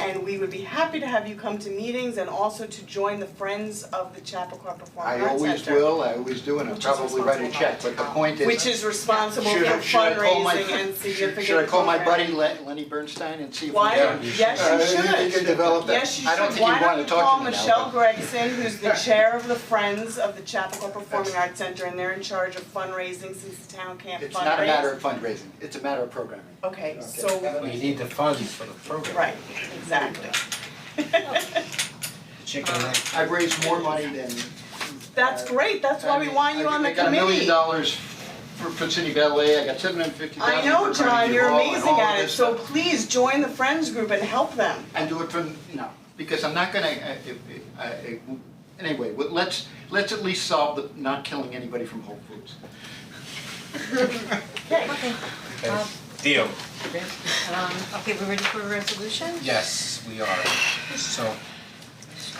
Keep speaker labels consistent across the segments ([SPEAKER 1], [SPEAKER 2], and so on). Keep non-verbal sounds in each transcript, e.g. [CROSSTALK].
[SPEAKER 1] and we would be happy to have you come to meetings and also to join the Friends of the Chappaqua Performing
[SPEAKER 2] I
[SPEAKER 1] Arts Center.
[SPEAKER 2] always will, I always do, and I'll
[SPEAKER 1] Which is
[SPEAKER 2] probably write a
[SPEAKER 1] responsible
[SPEAKER 2] check,
[SPEAKER 1] for
[SPEAKER 2] but the point is.
[SPEAKER 1] Which is responsible for
[SPEAKER 2] Should I- [LAUGHS] should I call my-
[SPEAKER 1] fundraising and significant
[SPEAKER 2] Should I call my buddy
[SPEAKER 1] programming.
[SPEAKER 2] Le- Lenny Bernstein and see if we
[SPEAKER 1] Why,
[SPEAKER 2] can? Uh,
[SPEAKER 1] yes, you should.
[SPEAKER 2] if we can develop that.
[SPEAKER 1] Yes, you
[SPEAKER 2] I don't
[SPEAKER 1] should,
[SPEAKER 2] think
[SPEAKER 1] why
[SPEAKER 2] he'd
[SPEAKER 1] don't
[SPEAKER 2] wanna
[SPEAKER 1] you
[SPEAKER 2] talk
[SPEAKER 1] call
[SPEAKER 2] to me now,
[SPEAKER 1] Michelle
[SPEAKER 2] but-
[SPEAKER 1] Gregson, who's the chair of the Friends of the Chapel Performing Arts Center, and they're in charge of fundraising since the town can't fundraise?
[SPEAKER 2] It's not a matter of fundraising, it's a matter of programming.
[SPEAKER 1] Okay,
[SPEAKER 2] Okay.
[SPEAKER 1] so,
[SPEAKER 3] We need the funds for the program.
[SPEAKER 1] right, exactly. [LAUGHS]
[SPEAKER 3] Chicken and egg.
[SPEAKER 2] I've raised more money than.
[SPEAKER 1] That's great, that's why we want you on the
[SPEAKER 2] I got a million
[SPEAKER 1] committee.
[SPEAKER 2] dollars for Put City Ballet, I got seven hundred fifty
[SPEAKER 1] I
[SPEAKER 2] thousand
[SPEAKER 1] know,
[SPEAKER 2] for
[SPEAKER 1] John,
[SPEAKER 2] Carnegie
[SPEAKER 1] you're
[SPEAKER 2] Hall and
[SPEAKER 1] amazing
[SPEAKER 2] all of
[SPEAKER 1] at it,
[SPEAKER 2] this
[SPEAKER 1] so
[SPEAKER 2] stuff.
[SPEAKER 1] please join the Friends group and help them.
[SPEAKER 2] And do it from, no, because I'm not gonna, uh, I, I, I, uh, anyway, well, let's, let's at least solve the not killing anybody from Whole Foods.
[SPEAKER 4] Okay,
[SPEAKER 3] Okay. Deal.
[SPEAKER 4] um, okay, we're ready for a resolution?
[SPEAKER 3] Yes, we are. So,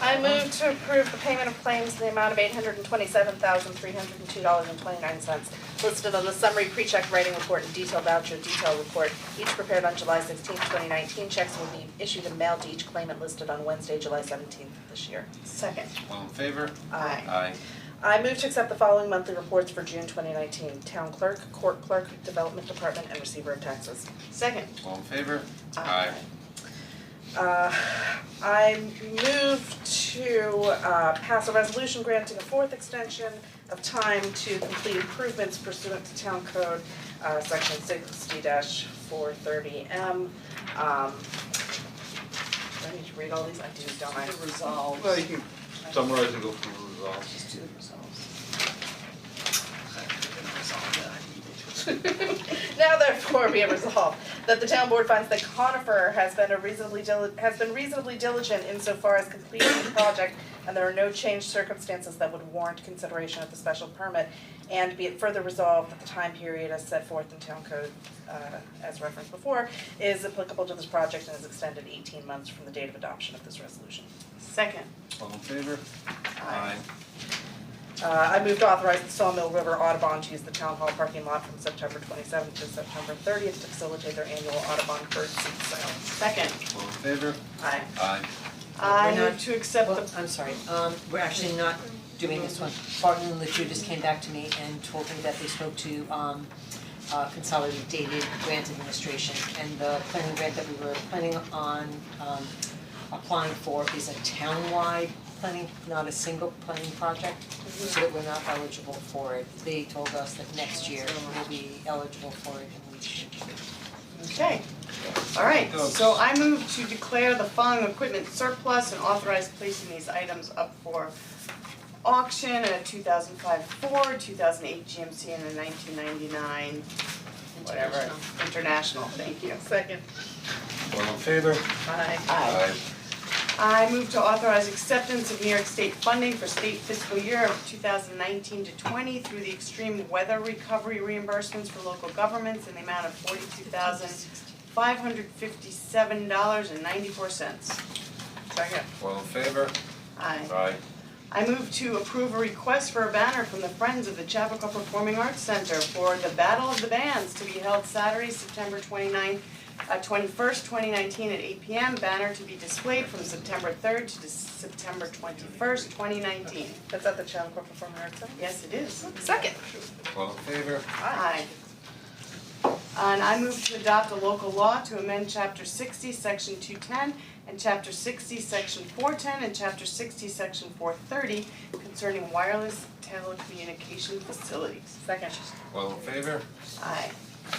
[SPEAKER 5] I move to approve the payment of claims in the amount of eight hundred and twenty-seven thousand, three hundred and two dollars and twenty-nine cents listed on the summary pre-check writing report and detailed voucher detail report, each prepared on July sixteenth, twenty nineteen. Checks will be issued and mailed to each claimant listed on Wednesday, July seventeenth this year.
[SPEAKER 1] Second.
[SPEAKER 3] all in favor?
[SPEAKER 1] Aye.
[SPEAKER 3] Aye.
[SPEAKER 5] I move to accept the following monthly reports for June twenty nineteen. Town clerk, court clerk, development department, and receiver of taxes.
[SPEAKER 1] Second.
[SPEAKER 3] All in favor?
[SPEAKER 5] Aye. Uh, I move to uh, pass a resolution granting a fourth extension of time to complete improvements pursuant to town code, uh, section sixty four thirty M. Um, do I need to read all these? I do, don't I? Resolve.
[SPEAKER 6] Well, you can summarize and go through the results.
[SPEAKER 5] Just do the resolves. Now therefore be it resolved that the town board finds that Conifer has been a reasonably dili- has been reasonably diligent insofar as completing the project and there are no changed circumstances that would warrant consideration of the special permit. And be it further resolved that the time period as set forth in town code uh as referenced before is applicable to this project and is extended eighteen months from the date of adoption of this resolution.
[SPEAKER 1] Second.
[SPEAKER 3] All in favor? Aye.
[SPEAKER 5] Uh, I moved to authorize the Sawmill River Audubon to use the town hall parking lot from September twenty-seventh to September thirtieth to facilitate their annual Audubon bird seed sale.
[SPEAKER 1] Second.
[SPEAKER 3] All in favor?
[SPEAKER 5] Aye.
[SPEAKER 3] Aye.
[SPEAKER 1] I
[SPEAKER 4] We're not-
[SPEAKER 1] move to accept
[SPEAKER 4] Well,
[SPEAKER 1] the,
[SPEAKER 4] I'm sorry, um, we're actually not doing this one. Barton and Luchu just came back to me and told me that they spoke to, um, uh, Consolidated Grant Administration and the planning grant that we were planning on, um, applying for is a town-wide planning, not a single planning project, so that we're not eligible for it. They told us that next year we'll be eligible for it and we should.
[SPEAKER 1] okay. Alright, so I move to declare the following equipment surplus and authorize placing these items up for auction in a two thousand five Ford, two thousand eight GMC and a nineteen ninety-nine, whatever, international, thank you.
[SPEAKER 5] Second.
[SPEAKER 3] All in favor?
[SPEAKER 5] Aye.
[SPEAKER 1] Aye. I move to authorize acceptance of New York State funding for state fiscal year of two thousand nineteen to twenty through the extreme weather recovery reimbursements for local governments in the amount of forty-two thousand five hundred fifty-seven dollars and ninety-four cents. Second.
[SPEAKER 3] All in favor?
[SPEAKER 1] Aye.
[SPEAKER 3] Aye.
[SPEAKER 1] I move to approve a request for a banner from the Friends of the Chappaqua Performing Arts Center for the Battle of the Bands to be held Saturday, September 29, uh, twenty-first, twenty nineteen at eight P M. Banner to be displayed from September third to dis- September twenty-first, twenty nineteen.
[SPEAKER 5] That's at the Chappaqua Performing Arts Center?
[SPEAKER 1] Yes, it is.
[SPEAKER 5] Second.
[SPEAKER 3] All in favor?
[SPEAKER 1] Aye. And I move to adopt a local law to amend chapter sixty, section two ten, and chapter sixty, section four ten, and chapter sixty, section four thirty concerning wireless telecommunication facilities.
[SPEAKER 5] Second.
[SPEAKER 3] All in favor?
[SPEAKER 1] Aye.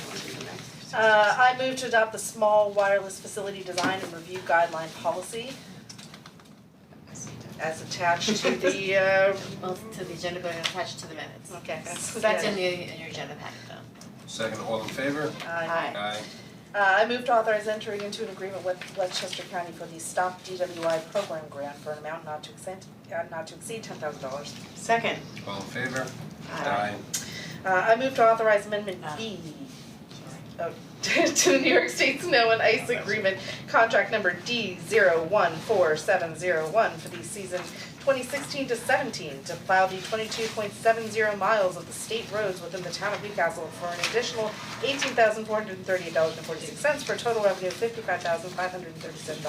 [SPEAKER 1] Wanna do the next?
[SPEAKER 5] Uh, I move to adopt the small wireless facility design and review guideline policy as attached to
[SPEAKER 7] [LAUGHS]
[SPEAKER 5] the, uh,
[SPEAKER 7] Both to the agenda but attached to the minutes.
[SPEAKER 5] okay.
[SPEAKER 7] So that's in the, in your agenda packet though.
[SPEAKER 3] Second, all in favor?
[SPEAKER 5] Aye.
[SPEAKER 1] Aye.
[SPEAKER 3] Aye.
[SPEAKER 5] Uh, I move to authorize entering into an agreement with Westchester County for the Stop DWI Program Grant for an amount not to exceed, uh, not to exceed ten thousand dollars.
[SPEAKER 1] Second.
[SPEAKER 3] All in favor?
[SPEAKER 1] Aye.
[SPEAKER 5] Uh, I move to authorize amendment B oh, [LAUGHS] to the New York State Snow and Ice Agreement, contract number D zero one four seven zero one for the season twenty sixteen to seventeen to plow the twenty-two point seven zero miles of the state roads within the town of Newcastle for an additional eighteen thousand four hundred and thirty-eight dollars and forty-six cents for a total revenue of fifty-five thousand five hundred and thirty-seven dollars